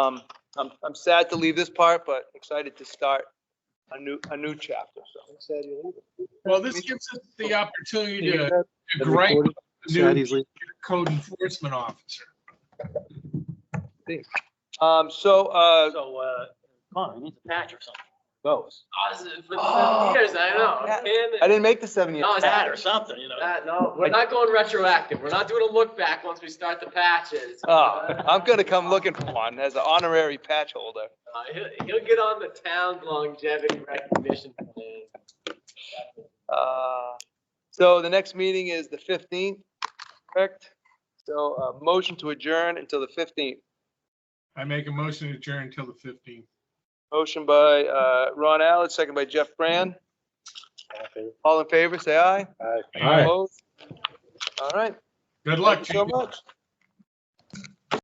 Um, I'm, I'm sad to leave this part, but excited to start a new, a new chapter, so. Well, this gives us the opportunity to Sad to gripe with the new he's leaving. code enforcement officer. Um, so, uh, So, uh, Connor, he needs a patch or something. those. positive for seven years, I yeah. know. I And didn't make the seven years. No, A it's Patch or something, you know. that, no, we're not going retroactive. We're not doing a look back once we start the patches. Oh, I'm gonna come looking for one as an honorary patch holder. Uh, he'll- He'll get on the town's longevity recognition plan. Uh, So the next meeting is the 15th, correct? So, uh, motion to adjourn until the 15th. I make a motion to adjourn until the 15th. Motion by, uh, Ron Allard, second by Jeff Brand. All in favor, say aye. All right. Opposed? All right. Good luck. Thank you so Jacob. much.